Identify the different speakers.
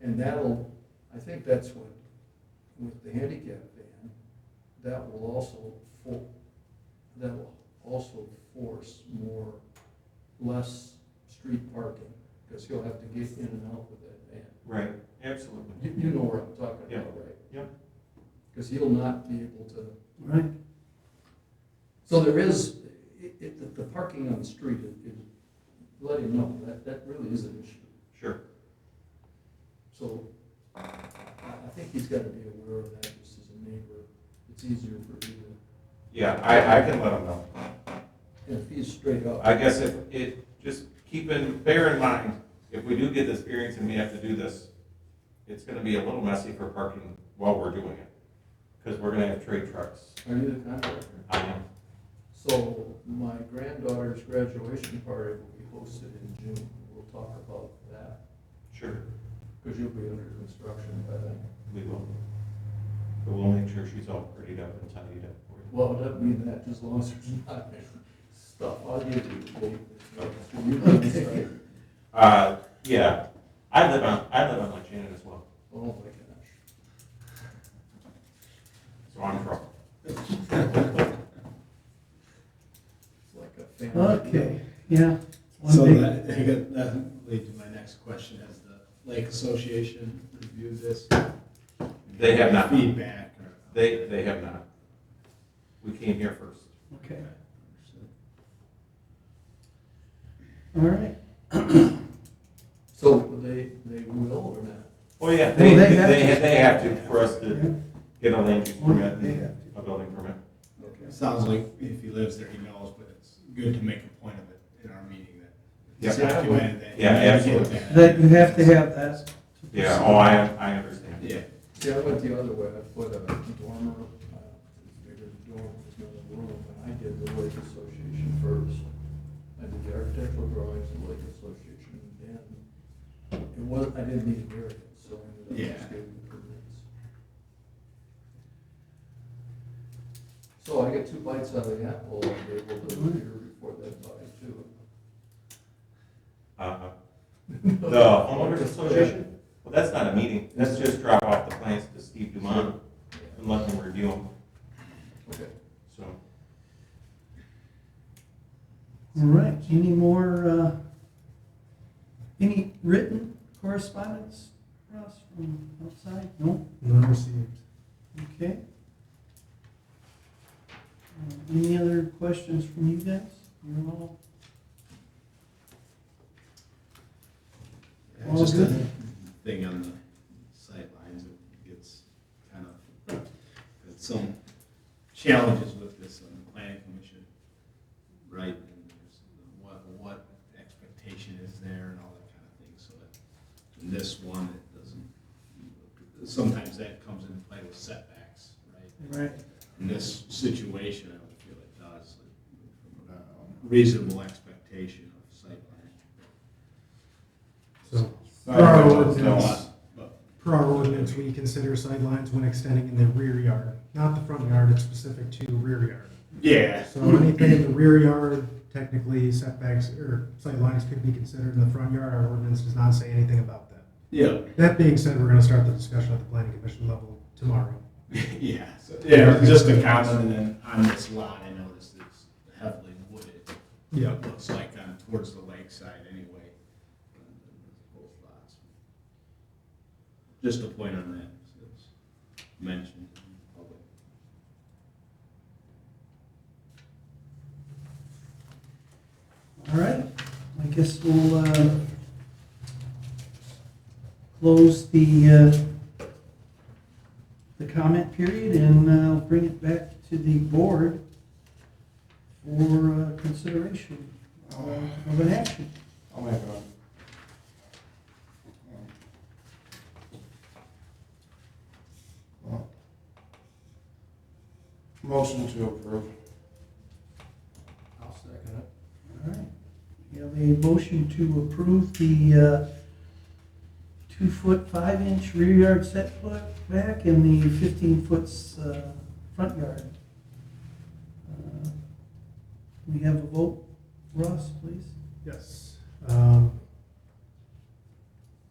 Speaker 1: And that'll, I think that's what, with the handicap van, that will also for, that will also force more, less street parking, because he'll have to get in and out with that van.
Speaker 2: Right, absolutely.
Speaker 1: You, you know where I'm talking
Speaker 2: Yeah.
Speaker 1: about, right?
Speaker 2: Yeah.
Speaker 1: Because he'll not be able to,
Speaker 3: Right,
Speaker 1: so there is, it, it, the- the parking on the street, it, it, let him know, that, that really is an issue.
Speaker 2: Sure.
Speaker 1: So I, I think he's gotta be aware of that just as a neighbor. It's easier for you to,
Speaker 2: Yeah, I, I can let them know.
Speaker 1: and if he's straight up.
Speaker 2: I guess if, it, just keep in, bear in mind, if we do get this variance and we have to do this, it's gonna be a little messy for parking while we're doing it. Cause we're gonna have trade trucks.
Speaker 1: Are you the contractor?
Speaker 2: I am,
Speaker 1: So my granddaughter's graduation party will be hosted in June. We'll talk about that,
Speaker 2: sure,
Speaker 1: because you'll be under construction by then.
Speaker 2: we will. But we'll make sure she's all prettied up and tidied up for you.
Speaker 1: Well, it doesn't mean that, as long as there's not stuff, I'll give you the date. So you can decide.
Speaker 2: Uh, yeah, I live on, I live on Lake Shannon as well,
Speaker 1: Oh my gosh.
Speaker 2: so I'm from.
Speaker 1: It's like a family.
Speaker 3: okay, yeah. One
Speaker 4: So
Speaker 3: big-
Speaker 4: that, I got, that lead to my next question, has the Lake Association reviewed this?
Speaker 2: They have not.
Speaker 4: Feedback or?
Speaker 2: They, they have not. We came here first.
Speaker 3: Okay, all right.
Speaker 1: So they, they will or not?
Speaker 2: Oh, yeah, they,
Speaker 3: Well,
Speaker 2: they,
Speaker 3: they have
Speaker 2: they
Speaker 3: to.
Speaker 2: they have to, for us
Speaker 3: Yeah.
Speaker 2: to get a land use permit,
Speaker 3: They
Speaker 2: and
Speaker 3: have
Speaker 2: a building permit.
Speaker 4: It Sounds like if he lives there, he knows, but it's good to make a point of it in our meeting that.
Speaker 2: Yeah.
Speaker 4: documented that.
Speaker 2: Yeah, absolutely.
Speaker 3: That you have to have that. to
Speaker 2: Yeah,
Speaker 3: proceed.
Speaker 2: oh, I, I understand.
Speaker 4: Yeah,
Speaker 1: See, I went the other way, I put a dormer, uh, bigger dorm, was another room, and I did the Lake Association first. I did the architectural drawings, the Lake Association, and then it was, I didn't need a variance, so I ended up just
Speaker 4: Yeah.
Speaker 1: getting the permits. So I get two bites out of the apple, I'm able to
Speaker 5: Mm-hmm.
Speaker 1: hear before that bite too.
Speaker 2: Uh, The homeowners association, well, that's not a meeting, that's just drop off the plans to Steve Dumont and let him review them,
Speaker 1: Okay.
Speaker 2: so.
Speaker 3: All right, any more, uh, any written correspondence for us from outside? No?
Speaker 6: None received.
Speaker 3: Okay. Uh, Any other questions from you guys? You're all,
Speaker 4: Yeah,
Speaker 3: All
Speaker 4: just a
Speaker 3: good.
Speaker 4: thing on the sight lines. it gets kind of, it's some challenges with this on the planning commission, right? And there's the What, what expectation is there and all that kind of thing, so that, in this one, it doesn't, sometimes that comes into play with setbacks, right?
Speaker 3: right,
Speaker 4: in this situation, I would feel it does, like, um, reasonable expectation of sightline.
Speaker 6: So, for our ordinance,
Speaker 4: But- but-
Speaker 6: per our ordinance, we consider sidelines when extending in the rear yard, not the front yard, it's specific to rear yard.
Speaker 4: Yeah.
Speaker 6: So anything in the rear yard, technically setbacks or sidelines could be considered in the front yard, our ordinance does not say anything about that.
Speaker 4: Yeah,
Speaker 6: That being said, we're gonna start the discussion at the planning commission level tomorrow.
Speaker 4: yeah, so- yeah, just a comment, and then on this lot, I noticed it's heavily wooded.
Speaker 6: Yeah.
Speaker 4: It Looks like on towards the lakeside anyway. Both lots. Just a point on that, so it's mentioned in public.
Speaker 3: all right. I guess we'll, uh, close the, uh, the comment period and, uh, bring it back to the board for, uh, consideration uh, of an action.
Speaker 5: I'll make a. Well. Motion to approve.
Speaker 1: I'll second it.
Speaker 3: All right. We have a motion to approve the uh, two-foot, five-inch rear yard setback and the 15-foot uh, front yard. Uh, We have a vote. Ross, please.
Speaker 6: Yes. Um,